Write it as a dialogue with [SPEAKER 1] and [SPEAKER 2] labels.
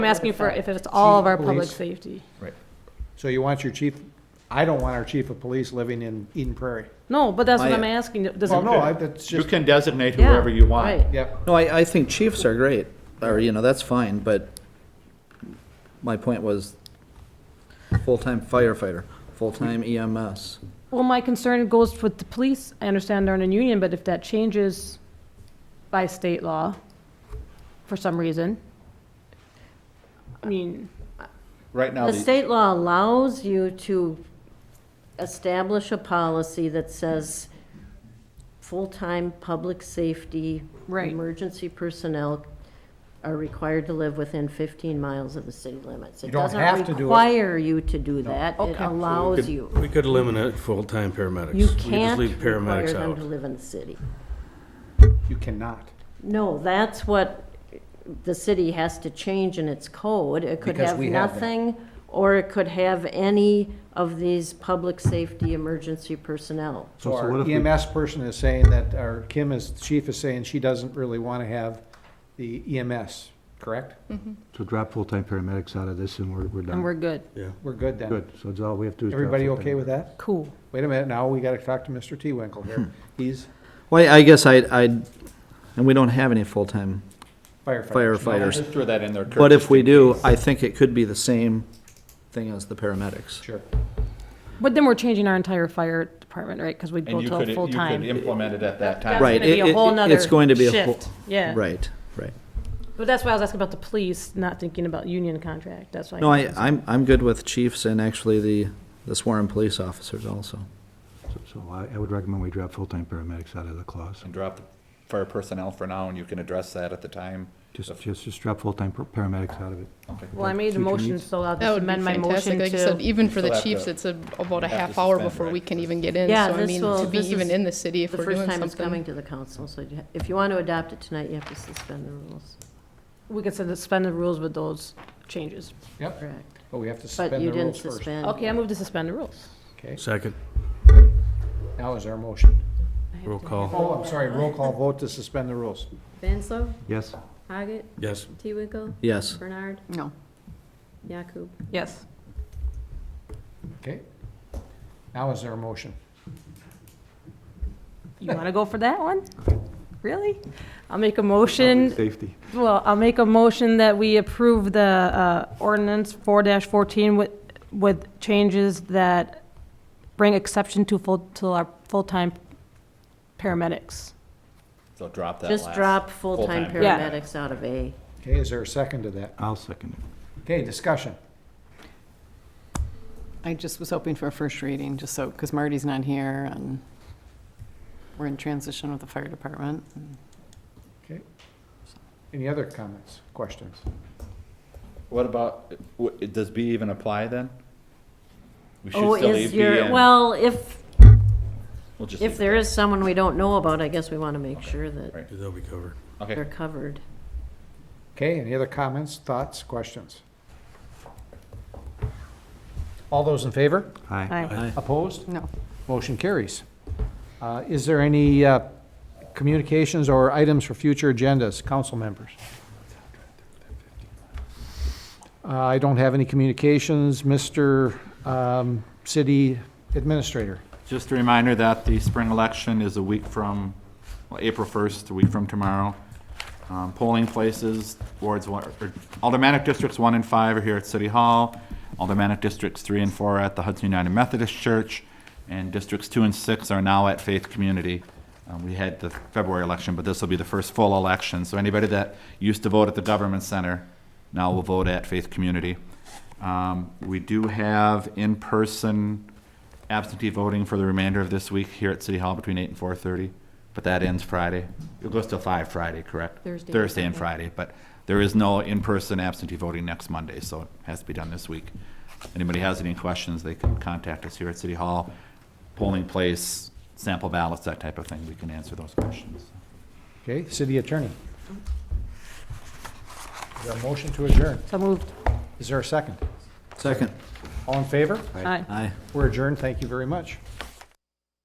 [SPEAKER 1] I'm asking for if it's all of our public
[SPEAKER 2] Police.
[SPEAKER 1] safety.
[SPEAKER 2] Right. So you want your chief, I don't want our chief of police living in Eden Prairie.
[SPEAKER 1] No, but that's what
[SPEAKER 3] I-
[SPEAKER 1] I'm asking. Does
[SPEAKER 2] Well,
[SPEAKER 1] it?
[SPEAKER 2] no, I, that's
[SPEAKER 3] You
[SPEAKER 2] just,
[SPEAKER 3] can designate
[SPEAKER 1] Yeah,
[SPEAKER 3] whoever you want.
[SPEAKER 1] right.
[SPEAKER 2] yep,
[SPEAKER 3] No, I, I think chiefs are great, or, you know, that's fine, but my point was full-time firefighter, full-time E EMS.
[SPEAKER 1] Well, my concern goes with the police. I understand they're in a union, but if that changes by state law for some reason, I mean,
[SPEAKER 3] Right now,
[SPEAKER 4] The
[SPEAKER 3] the-
[SPEAKER 4] state law allows you to establish a policy that says full-time public safety.
[SPEAKER 1] Right.
[SPEAKER 4] Emergency personnel are required to live within 15 miles of the city limits.
[SPEAKER 2] You don't have to do it.
[SPEAKER 4] doesn't require you to do that. It
[SPEAKER 1] Okay.
[SPEAKER 4] allows
[SPEAKER 5] Could-
[SPEAKER 4] you.
[SPEAKER 5] We could eliminate full-time paramedics.
[SPEAKER 4] You
[SPEAKER 5] We just
[SPEAKER 4] can't
[SPEAKER 5] leave
[SPEAKER 4] require
[SPEAKER 5] paramedics
[SPEAKER 4] them to
[SPEAKER 5] out.
[SPEAKER 4] live in the city.
[SPEAKER 2] you cannot.
[SPEAKER 4] No, that's what the city has to change in its code. It could
[SPEAKER 2] Because
[SPEAKER 4] have
[SPEAKER 2] we have that.
[SPEAKER 4] nothing, or it could have any of these public safety emergency personnel.
[SPEAKER 2] So our EMS person is saying that, or Kim is, chief is saying she doesn't really want to have the EMS, correct?
[SPEAKER 6] So drop full-time paramedics out of this and we're, we're
[SPEAKER 1] and
[SPEAKER 6] done.
[SPEAKER 1] we're good.
[SPEAKER 2] We're good then.
[SPEAKER 6] Good, so it's all we have to do is. drop
[SPEAKER 2] Everybody
[SPEAKER 6] full-time.
[SPEAKER 2] okay with that?
[SPEAKER 1] Cool.
[SPEAKER 2] Wait a minute, now we got to talk to Mr. T. Winkle here. He's
[SPEAKER 3] well, I guess I, I, and we don't have any full-time
[SPEAKER 2] firefighter.
[SPEAKER 3] firefighters.
[SPEAKER 7] Just throw that in there. Kurt,
[SPEAKER 3] But
[SPEAKER 7] just
[SPEAKER 3] if we
[SPEAKER 7] in
[SPEAKER 3] do,
[SPEAKER 7] case.
[SPEAKER 3] I think it could be the same thing as the paramedics.
[SPEAKER 2] Sure.
[SPEAKER 1] But then we're changing our entire fire department, right? Because we'd go
[SPEAKER 7] And you
[SPEAKER 1] to
[SPEAKER 7] could,
[SPEAKER 1] a
[SPEAKER 7] you could
[SPEAKER 1] full-time.
[SPEAKER 7] implement it at that
[SPEAKER 1] That's
[SPEAKER 7] time.
[SPEAKER 3] Right,
[SPEAKER 1] gonna be a
[SPEAKER 3] it- it-
[SPEAKER 1] whole nother
[SPEAKER 3] it's going to be a
[SPEAKER 1] shift.
[SPEAKER 3] whole-
[SPEAKER 1] Yeah.
[SPEAKER 3] Right, right.
[SPEAKER 1] But that's why I was asking about the police, not thinking about union contract. That's why.
[SPEAKER 3] No, I, I'm, I'm good with chiefs and actually the, the sworn police officers also.
[SPEAKER 6] So- So I, I would recommend we drop full-time paramedics out of the clause.
[SPEAKER 7] And drop the fire personnel for now, and you can address that at the time.
[SPEAKER 6] Just, just, just drop full-time par- paramedics out of it.
[SPEAKER 7] Okay.
[SPEAKER 1] Well, I made a
[SPEAKER 6] Future
[SPEAKER 1] motion,
[SPEAKER 6] needs.
[SPEAKER 1] so I'll
[SPEAKER 8] That
[SPEAKER 4] uh,
[SPEAKER 1] just
[SPEAKER 8] would be
[SPEAKER 1] amend my motion
[SPEAKER 8] fantastic. Like you said,
[SPEAKER 1] to.
[SPEAKER 8] e- even for the
[SPEAKER 7] Still have
[SPEAKER 8] chiefs,
[SPEAKER 7] to-
[SPEAKER 8] it's a- about a
[SPEAKER 7] have to
[SPEAKER 8] half hour
[SPEAKER 7] suspend,
[SPEAKER 8] before
[SPEAKER 7] right?
[SPEAKER 8] we can even get in.
[SPEAKER 4] Yeah,
[SPEAKER 8] So I
[SPEAKER 4] this
[SPEAKER 8] mean,
[SPEAKER 4] will-
[SPEAKER 8] to be
[SPEAKER 4] this
[SPEAKER 8] even
[SPEAKER 4] is
[SPEAKER 8] in the city if
[SPEAKER 4] The
[SPEAKER 8] we're
[SPEAKER 4] first
[SPEAKER 8] doing
[SPEAKER 4] time it's coming
[SPEAKER 8] something.
[SPEAKER 4] to the council, so you ha- if you want to adopt it tonight, you have to suspend the rules.
[SPEAKER 1] We can suspend the rules with those changes.
[SPEAKER 2] Yep,
[SPEAKER 4] Correct.
[SPEAKER 2] but we have to suspend
[SPEAKER 4] But
[SPEAKER 2] the
[SPEAKER 4] you didn't
[SPEAKER 2] rules first.
[SPEAKER 4] suspend.
[SPEAKER 1] Okay, I move to suspend the rules.
[SPEAKER 2] Okay,
[SPEAKER 5] Second,
[SPEAKER 2] now is our motion.
[SPEAKER 5] roll call,
[SPEAKER 2] Oh, I'm sorry, roll call vote to suspend the rules.
[SPEAKER 9] Vanslo,
[SPEAKER 6] Yes,
[SPEAKER 9] Haggett,
[SPEAKER 5] yes.
[SPEAKER 9] T. Winkle,
[SPEAKER 3] Yes.
[SPEAKER 9] Bernard,
[SPEAKER 8] No.
[SPEAKER 9] Yakub.
[SPEAKER 1] Yes.
[SPEAKER 2] Okay. Now is our motion.
[SPEAKER 1] You want to go for that one? Really? I'll make a motion,
[SPEAKER 6] safety.
[SPEAKER 1] well, I'll make a motion that we approve the uh, ordinance four fourteen with, with changes that bring exception to full, to our full-time paramedics.
[SPEAKER 7] So drop that last.
[SPEAKER 4] Just drop full-time
[SPEAKER 7] Full-time.
[SPEAKER 1] Yeah.
[SPEAKER 4] paramedics out of A.
[SPEAKER 2] Okay, is there a second to that?
[SPEAKER 6] I'll second it.
[SPEAKER 2] Okay, discussion.
[SPEAKER 10] I just was hoping for a first reading, just so, because Marty's not here, and we're in transition with the fire department.
[SPEAKER 2] Okay. Any other comments, questions?
[SPEAKER 7] What about, w- does B even apply then? We should
[SPEAKER 4] Oh,
[SPEAKER 7] still
[SPEAKER 4] is
[SPEAKER 7] leave B
[SPEAKER 4] your,
[SPEAKER 7] in.
[SPEAKER 4] well, if,
[SPEAKER 7] We'll just
[SPEAKER 4] if
[SPEAKER 7] leave it.
[SPEAKER 4] there is someone we don't know about, I guess we want to make sure
[SPEAKER 7] Right.
[SPEAKER 4] that
[SPEAKER 5] They'll be covered.
[SPEAKER 4] they're
[SPEAKER 7] Okay,
[SPEAKER 4] covered.
[SPEAKER 2] Okay, any other comments, thoughts, questions? All those in favor?
[SPEAKER 6] Aye.
[SPEAKER 1] Aye.
[SPEAKER 2] Opposed?
[SPEAKER 10] No.
[SPEAKER 2] Motion carries. Uh, Is there any uh, communications or items for future agendas, council members? Uh, I don't have any communications. Mr. um, City Administrator?
[SPEAKER 7] just a reminder that the spring election is a week from, well, April first, a week from tomorrow. Um, polling places, wards one, or aldermanic districts one and five are here at City Hall. Aldermanic districts three and four are at the Hudson United Methodist Church, and districts two and six are now at Faith Community. Um, we had the February election, but this will be the first full election, so anybody that used to vote at the government center now will vote at Faith Community. Um, we do have in-person absentee voting for the remainder of this week here at City Hall between eight and four thirty, but that ends Friday. It goes till five Friday, correct?
[SPEAKER 9] Thursday.
[SPEAKER 7] Thursday and Friday, but there is no in-person absentee voting next Monday, so it has to be done this week. Anybody has any questions, they can contact us here at City Hall, polling place, sample ballots, that type of thing. We can answer those questions.
[SPEAKER 2] Okay, City Attorney? Is there a motion to adjourn?
[SPEAKER 1] So moved.
[SPEAKER 2] Is there a second?
[SPEAKER 3] Second.
[SPEAKER 2] All in favor?
[SPEAKER 1] Aye.
[SPEAKER 3] Aye.
[SPEAKER 2] We're adjourned. Thank you very much.